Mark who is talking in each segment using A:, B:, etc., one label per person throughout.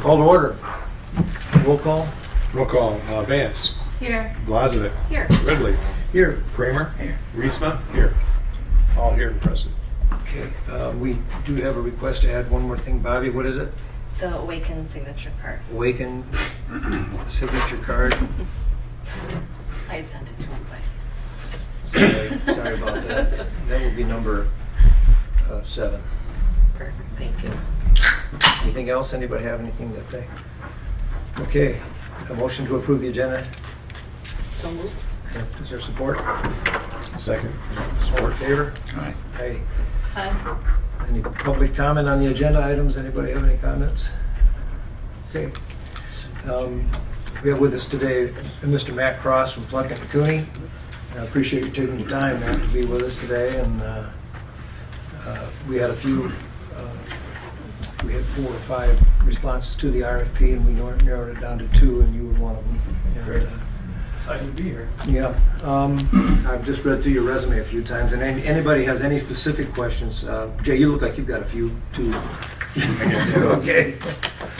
A: Call to order. Roll call.
B: Roll call, uh, Vance,
C: Here.
B: Blazevic,
C: Here.
B: Ridley,
A: Here.
B: Kramer, Reesma, here. All here and present.
A: Okay, uh, we do have a request to add one more thing. Bobby, what is it?
C: The Awaken signature card.
A: Awaken signature card.
C: I had sent it to him, but.
A: Sorry sorry about that. That will be number uh, seven.
C: Perfect, thank you.
A: Anything else? Anybody have anything that they? Okay, a motion to approve the agenda.
C: So moved.
A: Is there support?
B: Second.
A: Support in favor?
B: Aye.
A: Aye.
C: Hi.
A: Any public comment on the agenda items? Anybody have any comments? Okay. Um, We have with us today Mr. Matt Cross from Plunkett and Cooney. And I appreciate you taking the time, Matt, to be with us today, and uh, uh, we had a few, uh, we had four or five responses to the RFP, and we nor- narrowed it down to two, and you were one of them. And,
B: Great.
A: uh,
B: Excited to be here.
A: yeah, um, I've just read through your resume a few times, and an- anybody has any specific questions, uh, Jay, you look like you've got a few too.
B: got two.
A: Okay,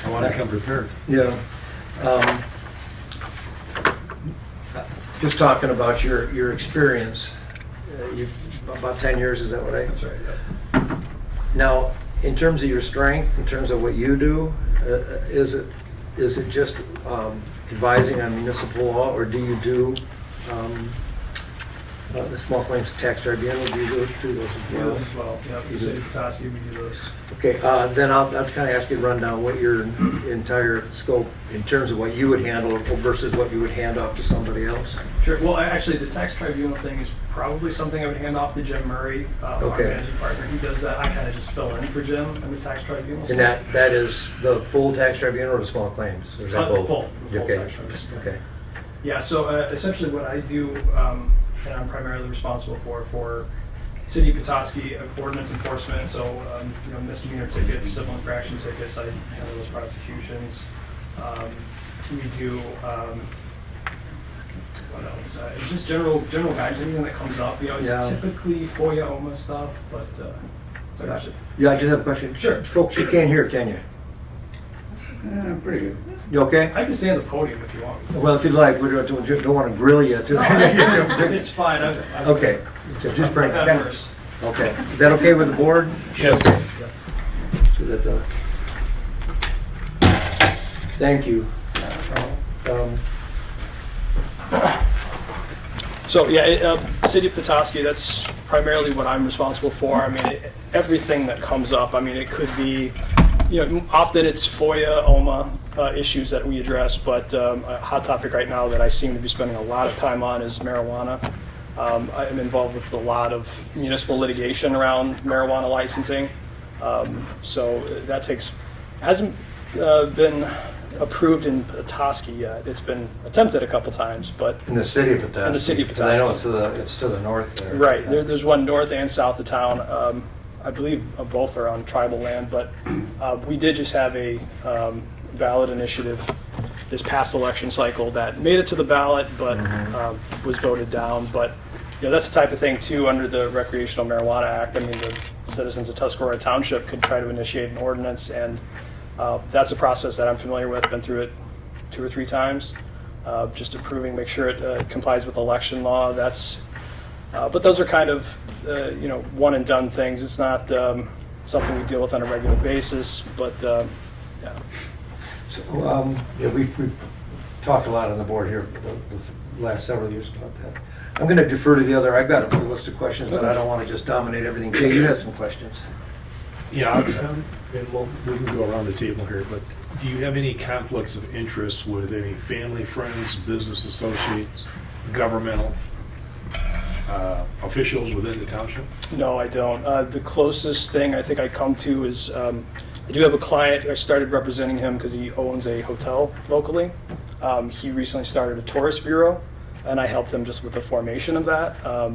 B: I want to come prepared.
A: yeah. Um, uh, Just talking about your, your experience, uh, you, about 10 years, is that what I?
B: right.
A: Now, in terms of your strength, in terms of what you do, uh, is it, is it just um, advising on municipal law, or do you do um, uh, the small claims tax tribunal, do you do- do those as
D: Yeah,
A: well?
D: as well, yeah, the city of Petoskey, we do those.
A: Okay, uh, then I'll, I'll kind of ask you to run down what your entire scope, in terms of what you would handle versus what you would hand off to somebody else.
D: Sure, well, I- actually, the tax tribunal thing is probably something I would hand off to Jim Murray, uh, our
A: Okay.
D: managing partner. He does that, I kind of just fill in for Jim and the tax tribunal.
A: And that, that is the full tax tribunal or the small claims? Or is that
D: Uh, the
A: both?
D: full- the full
A: Okay,
D: tax tribunal.
A: Okay,
D: Yeah, so uh, essentially what I do, um, and I'm primarily responsible for, for City of Petoskey uh, ordinance enforcement, so, um, you know, misdemeanor tickets, civil infraction tickets, I handle those prosecutions. Um, We do, um, what else, Uh, just general, general guidance, anything that comes up, you know,
A: Yeah.
D: it's typically FOIA, OMA stuff, but, uh, so actually,
A: yeah, I just have a question.
D: Sure.
A: Folks, you can't hear, can you?
B: Pretty good.
A: You okay?
D: I can stay on the podium if you want.
A: Well, if you'd like, we don't, don't want to grill you. to-
D: No, It's it's fine, I've. I've-
A: Okay, so just bring,
D: I've had worse.
A: okay. Is that okay with the board?
B: Yes.
A: So that, uh, thank you. Um,
D: So, yeah, it, uh, City of Petoskey, that's primarily what I'm responsible for. I mean, it, everything that comes up, I mean, it could be, you know, often it's FOIA, OMA uh, issues that we address, but um, a hot topic right now that I seem to be spending a lot of time on is marijuana. Um, I am involved with a lot of municipal litigation around marijuana licensing. Um, so that takes, hasn't uh, been approved in Petoskey yet. It's been attempted a couple times, but
A: In the city of Petoskey.
D: In the city of
A: And I know
D: Petoskey.
A: it's to the, it's to the north there.
D: Right, there, there's one north and south of town. Um, I believe uh, both are on tribal land, but uh, we did just have a um, ballot initiative this past election cycle that made it to the ballot, but um, was voted down. But, you know, that's the type of thing too, under the Recreational Marijuana Act. I mean, the citizens of Tuscarora Township could try to initiate an ordinance, and uh, that's a process that I'm familiar with, been through it two or three times. Uh, Just approving, make sure it uh, complies with election law. That's uh, But those are kind of, uh, you know, one-and-done things. It's not um, something we deal with on a regular basis, but, um, yeah.
A: So, um, yeah, we, we talked a lot on the board here the, the last several years about that. I'm gonna defer to the other, I've got a list of questions, but I don't want to just dominate everything. Jay, you had some questions?
B: Yeah, um, and we'll, we can go around the table here, but do you have any conflicts of interest with any family, friends, business associates, governmental uh, officials within the township?
D: no, I don't. Uh, The closest thing I think I come to is, um, I do have a client, I started representing him because he owns a hotel locally. Um, He recently started a tourist bureau, and I helped him just with the formation of that. Um,